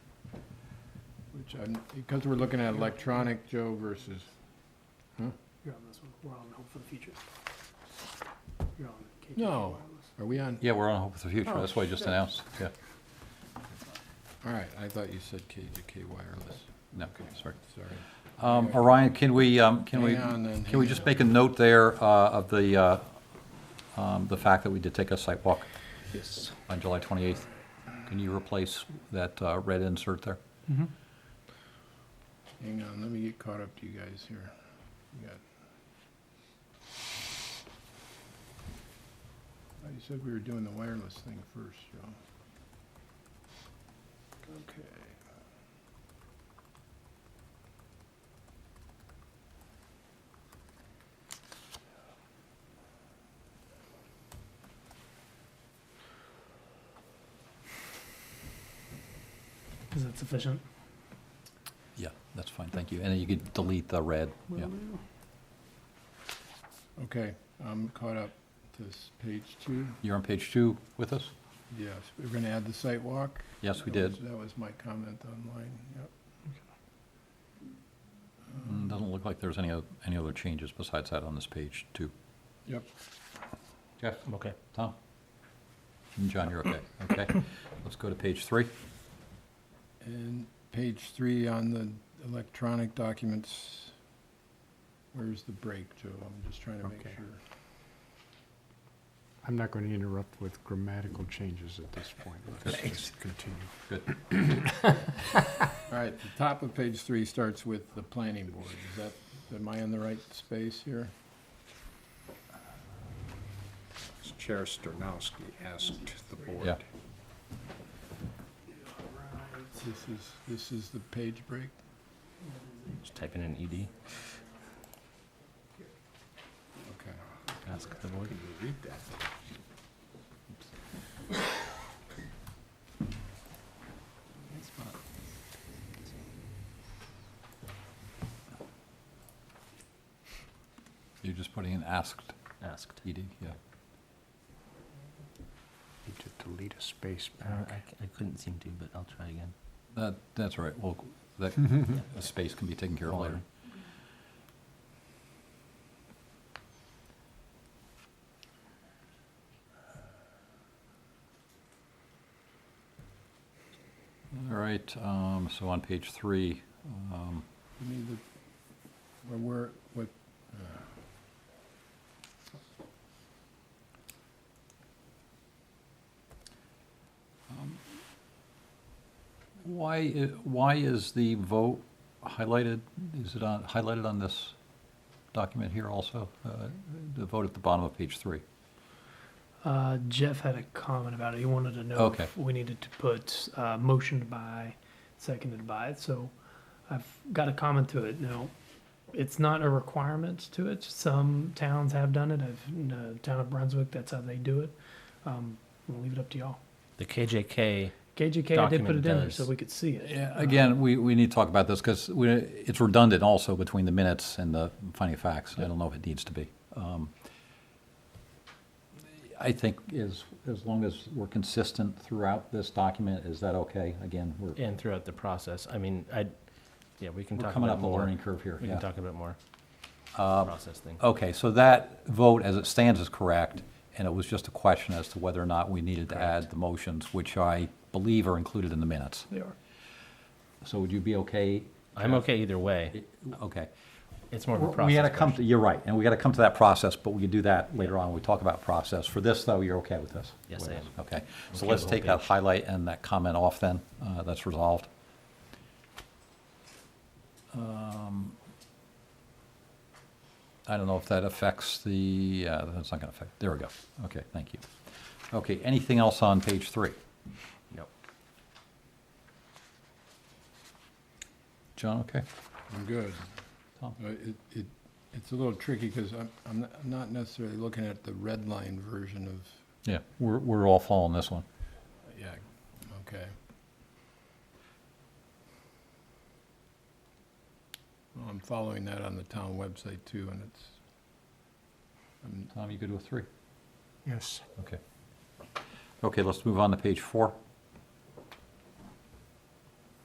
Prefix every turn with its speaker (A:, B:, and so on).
A: Which,
B: I'm- Because we're looking at electronic, Joe, versus,
A: you're on this one, we're on Hope for the Future. You're on KPP
B: No.
A: Wireless.
B: are we on?
C: Yeah, we're on Hope for the Future,
A: Oh,
C: that's what I just
A: shit.
C: announced, yeah.
B: All right, I thought you said K to K wireless,
C: No, sorry.
B: sorry.
C: Um, Orion, can we, um, can we,
B: Hang on then,
C: can we
B: hang
C: just
B: on.
C: make a note there uh, of the, uh, um, the fact that we did take a site walk
A: Yes.
C: on July 28th? Can you replace that uh, red insert there?
B: Hang on, let me get caught up to you guys here. You got- Oh, You said we were doing the wireless thing first, Joe. Okay.
A: Is that sufficient?
C: Yeah, that's fine, thank you. And then you could delete the red, yeah.
B: Okay, I'm caught up to s- page two.
C: You're on page two with us?
B: Yes, we're gonna add the site walk.
C: Yes, we
B: That was-
C: did.
B: That was my comment online, yep.
C: Mm, Doesn't look like there's any, oth- any other changes besides that on this page two.
B: Yep.
C: Jeff?
D: Okay.
C: Tom? And John, you're okay, okay? Let's go to page three.
B: And page three on the electronic documents, where's the break, Joe? I'm just trying to make
D: Okay.
B: sure.
D: I'm not going to interrupt with grammatical changes at this point. Let's just continue.
C: Good.
B: All right, the top of page three starts with the planning board. Is that, am I in the right space here?
D: Chair Sternowski asked the
C: Yeah.
D: board.
B: This is, this is the page break?
E: Just type in an E ED.
B: Okay.
E: Ask the board.
D: Can you read that?
C: You're just putting in asked,
E: Asked.
C: ED, yeah.
D: Need to delete a space
E: I, don't-
D: back.
E: I c- I couldn't seem to, but I'll try again.
C: That, that's all right, well, that, the space can be taken care of later. All right, um, so on page three, um,
B: You mean the, where, we're what? uh,
C: Um, why, i- why is the vote highlighted? Is it on, highlighted on this document here also? Uh, The vote at the bottom of page three?
F: Uh, Jeff had a comment about it. He wanted to know
C: Okay.
F: if we needed to put uh, motioned by, seconded by. So I've got a comment to it. Now, it's not a requirement to it. Some towns have done it. I've, in the town of Brunswick, that's how they do it. Um, we'll leave it up to y'all.
E: The KJK,
F: KJK, I did put it in
E: Document
F: there
E: does.
F: so we could see it. Um,
C: Yeah, Again, we, we need to talk about this because we, it's redundant also between the minutes and the finding of facts. I don't know if it needs to be. Um, I think as, as long as we're consistent throughout this document, is that okay? Again, we're,
E: and throughout the process, I mean, I, yeah, we can
C: we're
E: talk
C: coming
E: about
C: up a
E: more.
C: learning curve here.
E: We
C: yeah. Uh,
E: can talk about more. Process thing.
C: Okay, so that vote as it stands is correct, and it was just a question as to whether or not we needed to add the motions, which I believe are included in the minutes.
F: They are.
C: So would you be okay?
E: I'm okay either way.
C: Okay.
E: It's more of a process.
C: We gotta come to,
E: question.
C: you're right, and we gotta come to that process, but we can do that later on when we talk about process. For this, though, you're okay with this?
E: Yes, I am.
C: Okay, so
E: Okay,
C: let's
E: the
C: take
E: whole
C: that
E: page.
C: highlight and that comment off then, Uh, that's resolved. Um, I don't know if that affects the, uh, that's not gonna affect, there we go, okay, thank you. Okay, anything else on page three?
E: Nope.
C: John, okay?
B: I'm good.
C: Tom?
B: Uh, It, it, it's a little tricky because I'm, I'm not- I'm not necessarily looking at the red line version of,
C: Yeah, we're, we're all following this one.
B: yeah, okay. Well, I'm following that on the town website too, and it's, I'm,
C: Tom, you good with three?
D: Yes.
C: Okay. Okay, let's move on to page four.